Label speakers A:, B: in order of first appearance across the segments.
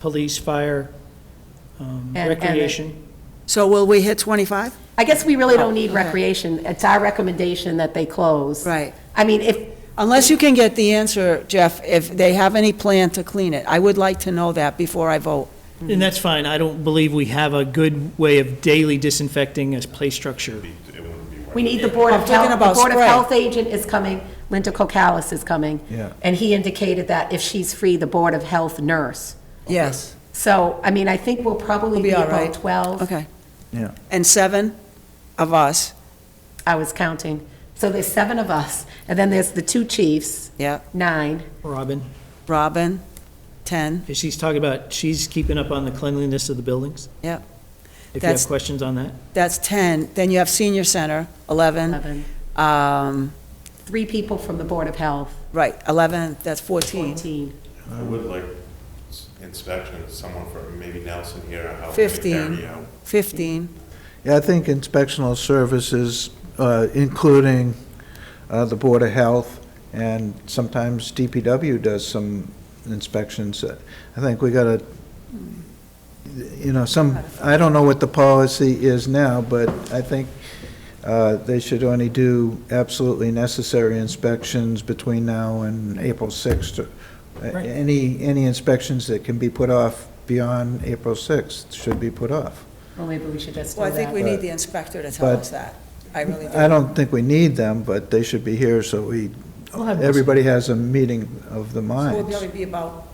A: police, fire, um,
B: And- and-
A: recreation.
C: So will we hit 25?
B: I guess we really don't need
C: Okay.
B: recreation. It's our recommendation that they close.
C: Right.
B: I mean, if,
C: Unless you can get the answer, Jeff, if they have any plan to clean it. I would like to know that before I vote.
A: And that's fine, I don't believe we have a good way of daily disinfecting a play structure.
B: we need the Board
C: I'm
B: of Health,
C: talking
B: the
C: about
B: Board of
C: spray.
B: Health agent is coming, Linda Kokalas is coming.
D: Yeah.
B: And he indicated that if she's free, the Board of Health nurse.
C: Yes.
B: So, I mean, I think we'll probably
C: We'll be
B: be
C: all
B: about
C: right.
B: 12,
C: Okay.
D: Yeah.
C: And seven of us,
B: I was counting. So there's seven of us, and then there's the two chiefs,
C: yeah.
B: nine.
A: Robin,
C: Robin, 10,
A: because she's talking about, she's keeping up on the cleanliness of the buildings.
C: Yep.
A: If you
C: That's-
A: have questions on that.
C: that's 10. Then you have senior center, 11.
B: Eleven.
C: Um,
B: Three people from the Board of Health,
C: Right, 11, that's 14.
B: 14.
E: I would like s- inspection, someone from maybe Nelson here, help me
C: Fifteen.
E: carry out.
C: 15,
D: Yeah, I think inspectional services, uh, including uh, the Board of Health, and sometimes DPW does some inspections. Uh, I think we gotta, you know, some, I don't know what the policy is now, but I think uh, they should only do absolutely necessary inspections between now and April 6th. Uh,
A: Right.
D: Any, any inspections that can be put off beyond April 6th should be put off.
B: Well, maybe we should just do
C: Well, I think we
B: that.
C: need the inspector to tell
D: But-
C: us that. I really do.
D: I don't think we need them, but they should be here so we,
A: We'll have-
D: everybody has a meeting of the
C: So We'll
D: minds.
C: probably be about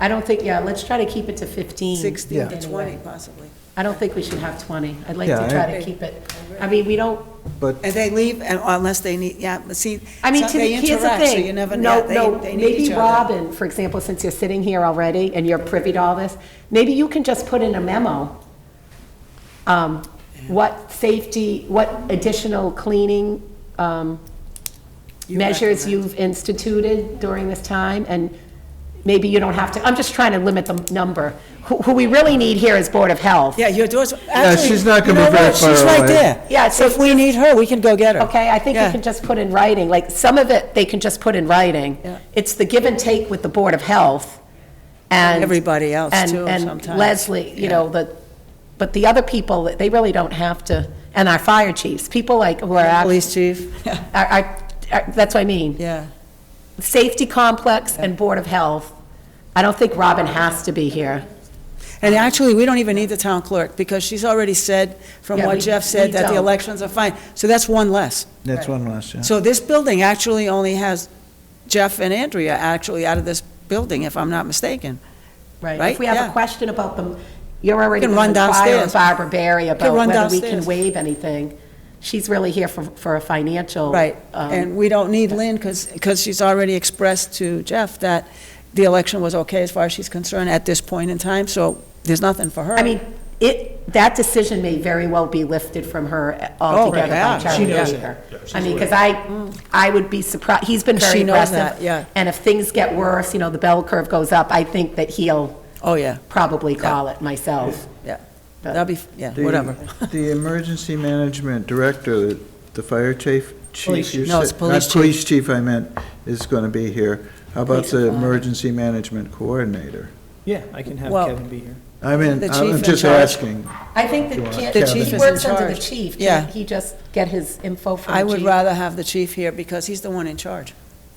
B: I don't think, yeah, let's try to keep it to 15.
C: 16 to
B: anyway.
C: 20 possibly.
B: I don't think we should have 20. I'd like
D: Yeah,
B: to
D: I-
B: try to keep it, I mean, we don't,
D: But
C: And they leave and- unless they need, yeah, but see,
B: I mean, to
C: some-
B: the,
C: they
B: here's the
C: interact, so you
B: thing.
C: never
B: No,
C: know. They-
B: no,
C: they need each
B: maybe
C: other.
B: Robin, for example, since you're sitting here already and you're privy to all this, maybe you can just put in a memo, um, what safety, what additional cleaning um,
C: You
B: measures
C: recommend.
B: you've instituted during this time, and maybe you don't have to, I'm just trying to limit the number. Who who we really need here is Board of Health.
C: Yeah, your door's,
D: Yeah,
C: actually.
D: she's not gonna
C: you
D: be
C: know
D: very
C: what? She's
D: far
C: right
D: away.
C: there.
B: Yeah, so
C: If we need her, we can go get her.
B: Okay, I think you
C: Yeah.
B: can just put in writing, like, some of it, they can just put in writing.
C: Yeah.
B: It's the give and take with the Board of Health and.
C: Everybody else,
B: and-
C: too,
B: And
C: sometimes.
B: Leslie, you know, the, but the other people, they really don't have to, and our fire chiefs, people like, who are, act-
C: Police chief,
B: are- are, are- that's what I mean.
C: yeah.
B: Safety complex and Board of Health. I don't think Robin has to be here.
C: And actually, we don't even need the town clerk, because she's already said, from
B: Yeah,
C: what
B: we-
C: Jeff
B: we
C: said, that the
B: don't.
C: elections are fine. So that's one less.
D: that's one last, yeah.
C: So this building actually only has Jeff and Andrea actually out of this building, if I'm not mistaken.
B: If
C: Right,
B: we have
C: yeah.
B: a question about them, you're already
C: Can
B: going to
C: run
B: inquire
C: downstairs.
B: of Barbara Barry about
C: run
B: whether we can
C: downstairs.
B: waive anything. She's really here for, for a financial.
C: Right,
B: um,
C: and we don't need Lynn, because, she's already expressed to Jeff that the election was okay as far as she's concerned at this point in time, so there's nothing for her.
B: I mean, it, that decision may very well be lifted from her uh,
C: Oh,
B: altogether by
C: yeah.
B: Charlie
A: She knows
B: Baker. I mean, because I, I would be surprised, he's been very
C: She knows
B: aggressive.
C: that, yeah.
B: And if things get worse, you know, the bell curve goes up, I think that he'll
C: Oh, yeah,
B: probably call it myself.
C: yeah,
B: But-
C: that'll be, yeah,
D: The-
C: whatever.
D: The emergency management director, the fire chief,
A: Police
D: chief, you
C: chief. No, it's
D: said-
C: police
D: not police chief I meant, is gonna be here. How about
B: Police and
D: the
B: fire.
D: emergency management coordinator?
A: Yeah, I can have
C: Well-
A: Kevin be here.
D: I mean,
C: The chief
D: I'm
C: in
D: just
C: charge.
D: asking.
B: I think that,
D: Sure.
B: can't-
D: The chief
B: he
C: is
B: works
C: in
B: under the
C: charge.
B: chief,
C: Yeah.
B: can't he just get his info from the
C: I
B: chief?
C: would rather have the chief here, because he's the one in charge.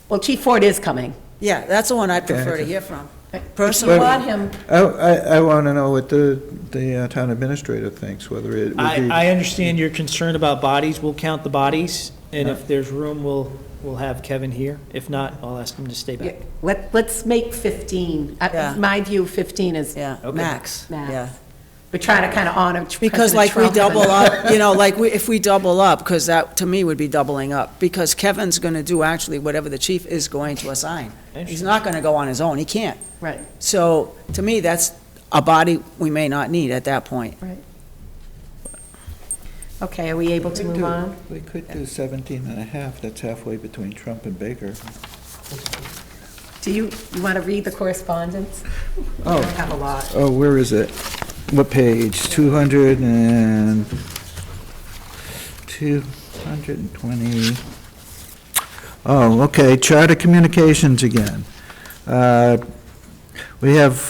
B: Well, Chief Ford is coming.
C: Yeah, that's the one I'd
D: Okay,
C: prefer to
D: okay.
C: hear from.
B: If you
C: Personally-
B: want him,
D: I, I, I wanna know what the, the uh, town administrator thinks, whether it would be.
A: I, I understand your concern about bodies, we'll count the bodies, and if there's room, we'll, we'll have Kevin here. If not, I'll ask him to stay back.
B: let, let's make 15. Uh,
C: Yeah.
B: My view, 15 is
C: Yeah,
A: Okay.
C: max, yeah.
B: max. We're trying to kind of honor Tr-
C: Because
B: President
C: like we
B: Trump and-
C: double up, you know, like we, if we double up, because that, to me, would be doubling up, because Kevin's gonna do actually whatever the chief is going to assign. He's not gonna go on his own, he can't.
B: Right.
C: So, to me, that's a body we may not need at that point.
B: Okay, are we able to move on?
D: We could do 17 and a half, that's halfway between Trump and Baker.
B: Do you, you want to read the correspondence? I don't have a lot.
D: Oh, where is it? What page? 200 and, 220. Oh, okay, Charter Communications again. Uh, We have